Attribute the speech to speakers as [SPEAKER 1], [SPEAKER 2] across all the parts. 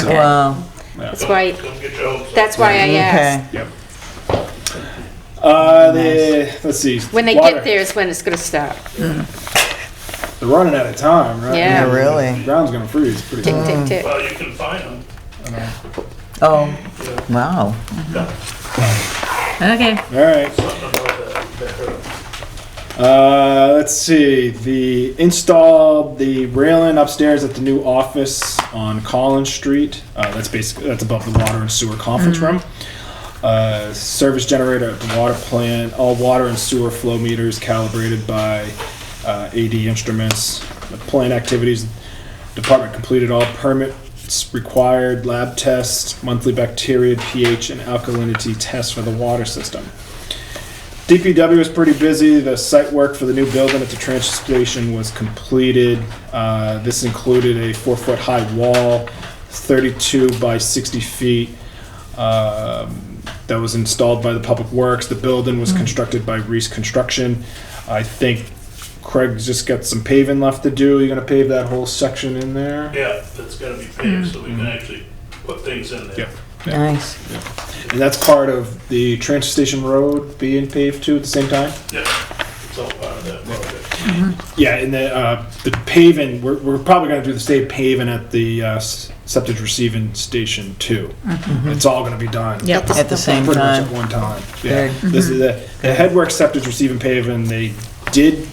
[SPEAKER 1] so. uh,
[SPEAKER 2] Wow.
[SPEAKER 3] That's why,
[SPEAKER 4] Don't get your hopes up.
[SPEAKER 3] that's why I asked.
[SPEAKER 2] Okay.
[SPEAKER 1] Yep. Uh, the, let's see.
[SPEAKER 3] When they
[SPEAKER 1] water.
[SPEAKER 3] get there is when it's gonna stop.
[SPEAKER 1] they're running out of time, right?
[SPEAKER 3] Yeah. Yeah,
[SPEAKER 2] really.
[SPEAKER 1] The ground's gonna freeze pretty
[SPEAKER 3] Tick,
[SPEAKER 1] soon.
[SPEAKER 3] tick, tick.
[SPEAKER 4] Well, you can find them.
[SPEAKER 2] Oh, wow. Okay.
[SPEAKER 1] All right.
[SPEAKER 4] Something about that, that.
[SPEAKER 1] Uh, let's see. The installed the railing upstairs at the new office on Collins Street. Uh, that's basically that's above the water and sewer conference room. Uh, service generator at the water plant. All water and sewer flow meters calibrated by uh, AD instruments. The plant activities department completed all permits required. Lab tests, monthly bacteria, pH, and alkalinity tests for the water system. DPW was pretty busy. The site work for the new building at the transfer station was completed. Uh, This included a four-foot-high wall, 32 by 60 feet, um, that was installed by the Public Works. The building was constructed by Reese Construction. I think Craig's just got some paving left to do. You gonna pave that whole section in there?
[SPEAKER 4] Yeah, that's gotta be paved, so we can actually put things in there.
[SPEAKER 1] Yep.
[SPEAKER 2] Nice.
[SPEAKER 1] And that's part of the transfer station road being paved too at the same time?
[SPEAKER 4] Yeah, it's all part of that project.
[SPEAKER 1] Yeah, and the, uh, the paving, we're, we're probably gonna do the same paving at the, uh, s- septic receiving station too. It's all gonna be done.
[SPEAKER 2] Yep. At the same
[SPEAKER 1] Pretty much at
[SPEAKER 2] time.
[SPEAKER 1] one time, yeah.
[SPEAKER 2] Good.
[SPEAKER 1] This is the, the headwork septic receiving paving, they did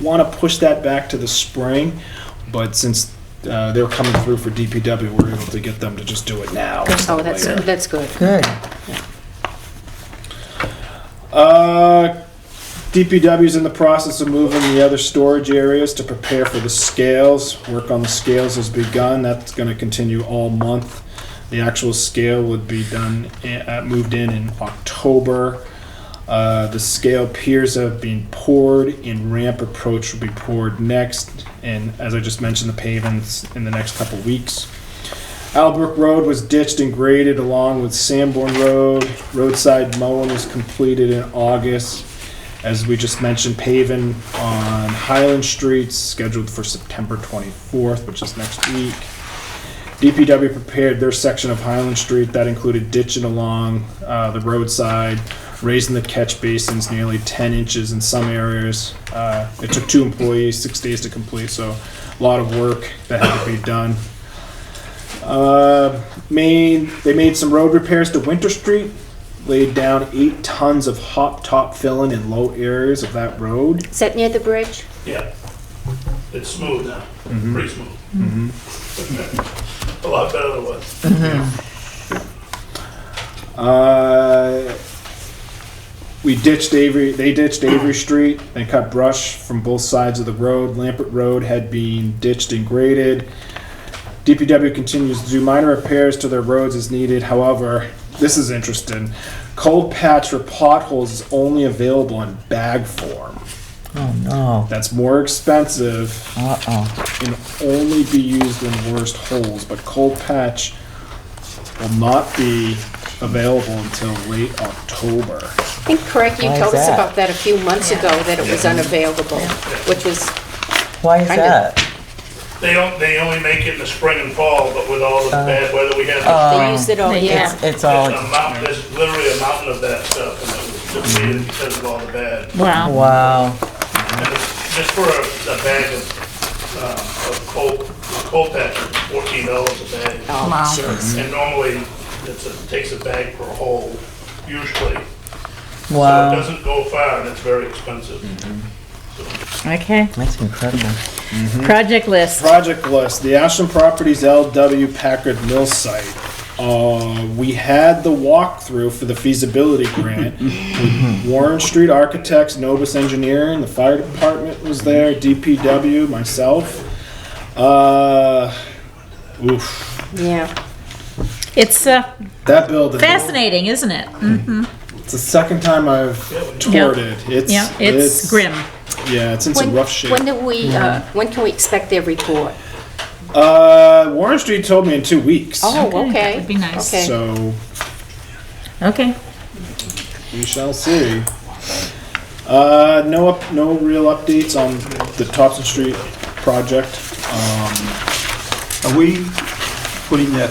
[SPEAKER 1] wanna push that back to the spring, but since, uh, they were coming through for DPW, we were able to get them to just do it now. instead
[SPEAKER 3] Oh,
[SPEAKER 1] of
[SPEAKER 3] that's,
[SPEAKER 1] later.
[SPEAKER 3] that's good.
[SPEAKER 2] Good.
[SPEAKER 1] Uh, DPW's in the process of moving the other storage areas to prepare for the scales. Work on the scales has begun. That's going to continue all month. The actual scale would be done, uh, moved in in October. Uh, the scale piers have been poured and ramp approach will be poured next. And as I just mentioned, the pavements in the next couple weeks. Albrook Road was ditched and graded along with Sanborn Road. Roadside mowing was completed in August. As we just mentioned, paving on Highland Street scheduled for September 24th, which is next week. DPW prepared their section of Highland Street that included ditching along uh, the roadside, raising the catch basins nearly 10 inches in some areas. Uh, It took two employees, six days to complete, so a lot of work that had to be done. Uh, made, they made some road repairs to Winter Street, laid down eight tons of hot top filling in low areas of that road.
[SPEAKER 3] Is that near the bridge?
[SPEAKER 4] Yeah, it's smooth now, pretty smooth. A lot better than it was.
[SPEAKER 1] Uh, we ditched Avery. They ditched Avery Street. They cut brush from both sides of the road. Lampert Road had been ditched and graded. DPW continues to do minor repairs to their roads as needed. However, this is interesting. Cold patch for potholes is only available in bag form.
[SPEAKER 2] Oh, no.
[SPEAKER 1] That's more expensive
[SPEAKER 2] Uh-oh.
[SPEAKER 1] can only be used in worst holes, but cold patch will not be available until late October.
[SPEAKER 3] I think, Craig, you
[SPEAKER 2] Why is
[SPEAKER 3] told us
[SPEAKER 2] that?
[SPEAKER 3] about that a few months ago, that it was unavailable, which was,
[SPEAKER 2] Why is
[SPEAKER 3] Kinda.
[SPEAKER 2] that?
[SPEAKER 4] They don't, they only make it in the spring and fall, but with all the bad weather we had.
[SPEAKER 2] Oh.
[SPEAKER 3] they used it all year.
[SPEAKER 2] It's, it's all,
[SPEAKER 4] There's a mountain, there's literally a mountain of that stuff, and it was depleted because of all the bad.
[SPEAKER 5] Wow.
[SPEAKER 2] wow.
[SPEAKER 4] And it's Just for a, a bag of, um, of coal, coal patch, fourteen dollars a bag.
[SPEAKER 3] Oh,
[SPEAKER 5] Wow.
[SPEAKER 3] jeez.
[SPEAKER 4] And normally, it's a, takes a bag per hole, usually. So it
[SPEAKER 2] Wow.
[SPEAKER 4] doesn't go far, and it's very expensive.
[SPEAKER 5] Okay.
[SPEAKER 2] That's incredible.
[SPEAKER 5] Project list.
[SPEAKER 1] Project list, the Ashland Properties LW Packard Mill site. Uh, we had the walkthrough for the feasibility grant. with Warren Street Architects, Novus Engineering, the fire department was there, DPW, myself. Uh, oof,
[SPEAKER 3] Yeah.
[SPEAKER 5] It's uh,
[SPEAKER 1] that building.
[SPEAKER 5] fascinating, isn't it? Mm,
[SPEAKER 1] It's the second time I've toured it. It's
[SPEAKER 5] Yeah, it's grim.
[SPEAKER 1] Yeah, it's in some
[SPEAKER 3] When,
[SPEAKER 1] rough shape.
[SPEAKER 3] when do we, uh, when can we expect their report?
[SPEAKER 1] uh, Warren Street told me in two weeks.
[SPEAKER 3] Oh,
[SPEAKER 5] Okay,
[SPEAKER 3] okay.
[SPEAKER 5] that would be nice.
[SPEAKER 3] Okay.
[SPEAKER 1] So
[SPEAKER 5] Okay.
[SPEAKER 1] we shall see. Uh, no, up, no real updates on the Um, Thompson Street project.
[SPEAKER 6] Are we putting that